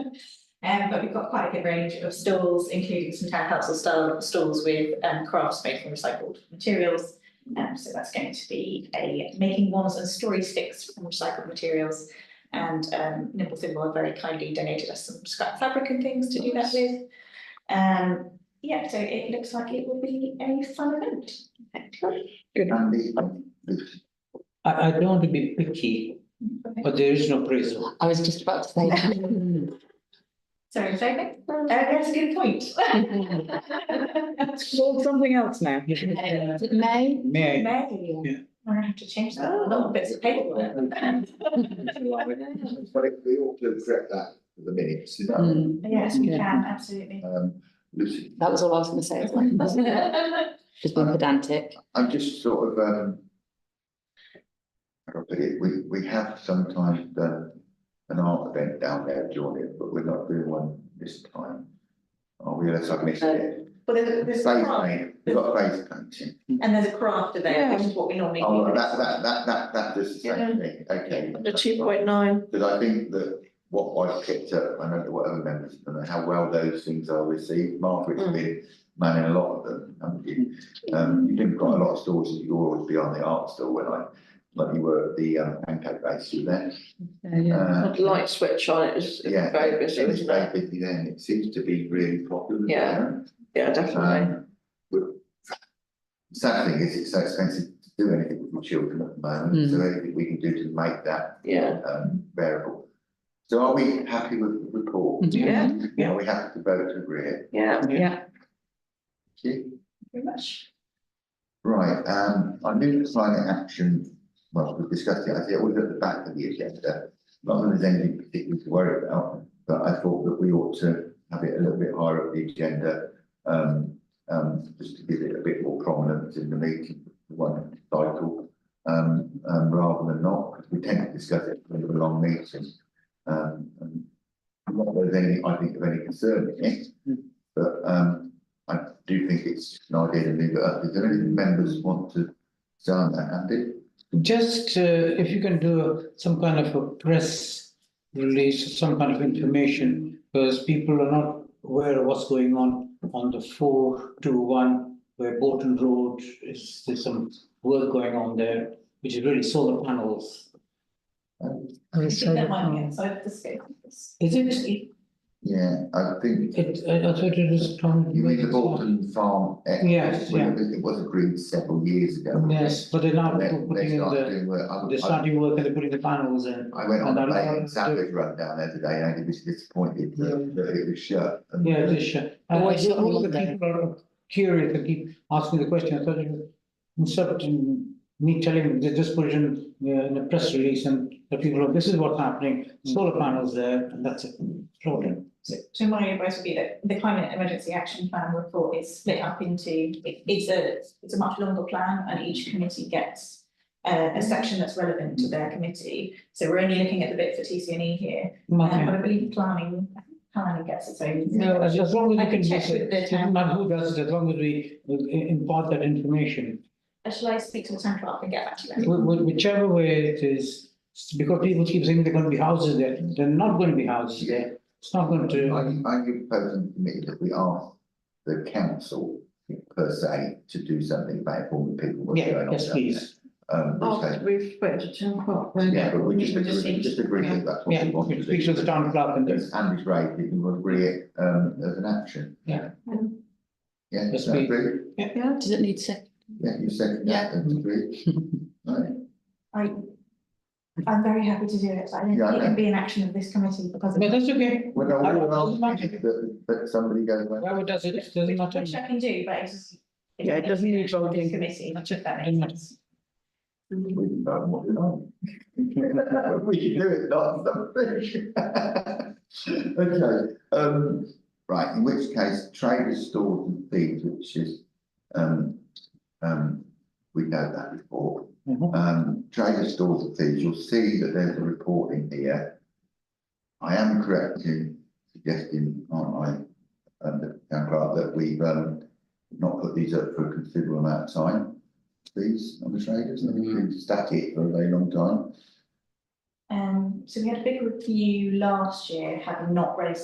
Um, but we've got quite a good range of stalls, including some town council stall, stalls with, um, crafts made from recycled materials. Um, so that's going to be a making wands and story sticks from recycled materials. And, um, Nippleton Moore very kindly donated us some scrap fabric and things to do that with. Um, yeah, so it looks like it will be a fun event. And the, I, I don't want to be picky, but there is no prison. I was just about to say. that. Sorry, David, uh, that's a good point. Called something else now. Is it May? May I? Maybe, Yeah. I'm gonna have to change that, Oh. a little bits of paperwork. but if we ought to correct that for the minutes, is that, Mm, Yes, we Yeah. can, absolutely. um, Lucy? That was all I was gonna say as well. Just being pedantic. I'm just sort of, um. I got to get, we, we have sometimes done an art event down there during it, but we're not doing one this time. Oh, we, unless I've missed it. But there's, Face there's a craft, paint, we've got face painting. and there's a craft event, which is what we normally Oh, do. that, that, that, that, that does the same thing, okay. The two point nine. Because I think that what I've picked up, I don't know what other members, I don't know how well those things are received, Margaret's Mm. been manning a lot of them, haven't you? Um, you did quite a lot of stores, and you always be on the art store when I, like you were at the um, pancake base, you were there. Uh, Had light switch on, it was it was Yeah, very busy, it was wasn't it? very busy then, it seems to be really popular Yeah. there. Yeah, definitely. Um, but Sad thing is, it's so expensive to do anything with my children at the moment, so Mm. anything we can do to make that Yeah, um variable. So are we happy with the report? Mhm. Yeah. Are we happy to vote to agree it? yeah. Thank you. Very much. Right, um, I knew the climate action, well, we discussed it, I think it was at the back of the agenda. Not that there's anything particularly to worry about, but I thought that we ought to have it a little bit higher up the agenda. Um, um, just to give it a bit more prominence in the meeting, one cycle. Um, um, rather than not, because we tend to discuss it when we're long meeting. Um, and not that there's any, I think, of any concern in it. But, um, I do think it's an idea to leave it up. Is there any members want to say on that, Andy? Just, uh, if you can do some kind of a press release, some kind of information, because people are not aware of what's going on on the four to one, where Bolton Road is, there's some work going on there, which is really solar panels. I think that might be outside the scope of this. Is it? Yeah, I think It, I I thought it was from. you mean the Bolton Farm Act, Yes, when yeah. It was- it was agreed several years ago. Yes, but they're now And then they putting in started the, doing work. I- they're I- starting work and they're putting the panels in. I went on and a I plane learned and Savage run down there today and I was disappointed that, that it was shut. and- uh, Yeah, they should. And Oh, I is it think all the there? people are curious and keep asking the question, I thought it was, instead of me telling, they just put it in, uh, in a press release and the people, are, this is what's happening, solar panels there, and that's it. Problem. So, so my advice would be that the climate emergency action plan report is split up into, it- it's a, it's a much longer plan and each committee gets a, a section that's relevant to their committee. So we're only looking at the bit for TCNE here, um, but I believe planning, planning gets its own. No, as, as long as I we can can, check use with it, the it doesn't matter who does it, as long as we uh, i- impart that information. Uh, Shall I speak to the town clerk and get back to you? Wh- wh- Whichever way it is, s- because people keep saying they're gonna be houses there, they're not gonna be houses there. It's not going I, to, I give proposing to me that we ask the council per se to do something about informing people what's going yeah, on. yes, down please. there. Um, which they- Oh, we've waited till ten o'clock. Yeah, but we just We just agree, need- just agree that that's what Yeah, we want to do. we speak to the town clerk and this. Yes, Andy's right, we can agree it, um, as an action. Yeah. Yeah, Yes, is that we- agree? Does it need to? Yeah, you second that, that's agreed. Right, I, I'm very happy to do it, but I don't Yeah, I think it can know. be an action of this committee because. But that's okay. well, no, I- what else, doesn't matter. that, that somebody goes, well, Whoever does it, doesn't matter. Which I can do, but it's just. Yeah, it doesn't need voting. Committee, That's if it, that doesn't makes matter. sense. we can vote on what we like. We can do it, not something. Okay, um, right, in which case, traders, stores and thieves, which is, um, um, we know that before. Mhm. um, trader stores and things, you'll see that there's a report in here. I am correct in suggesting, aren't I, um, the town clerk, that we've, um, not put these up for a considerable amount of time. These on the traders, they've been static for a very long time. Um, so we had a big review last year, having not raised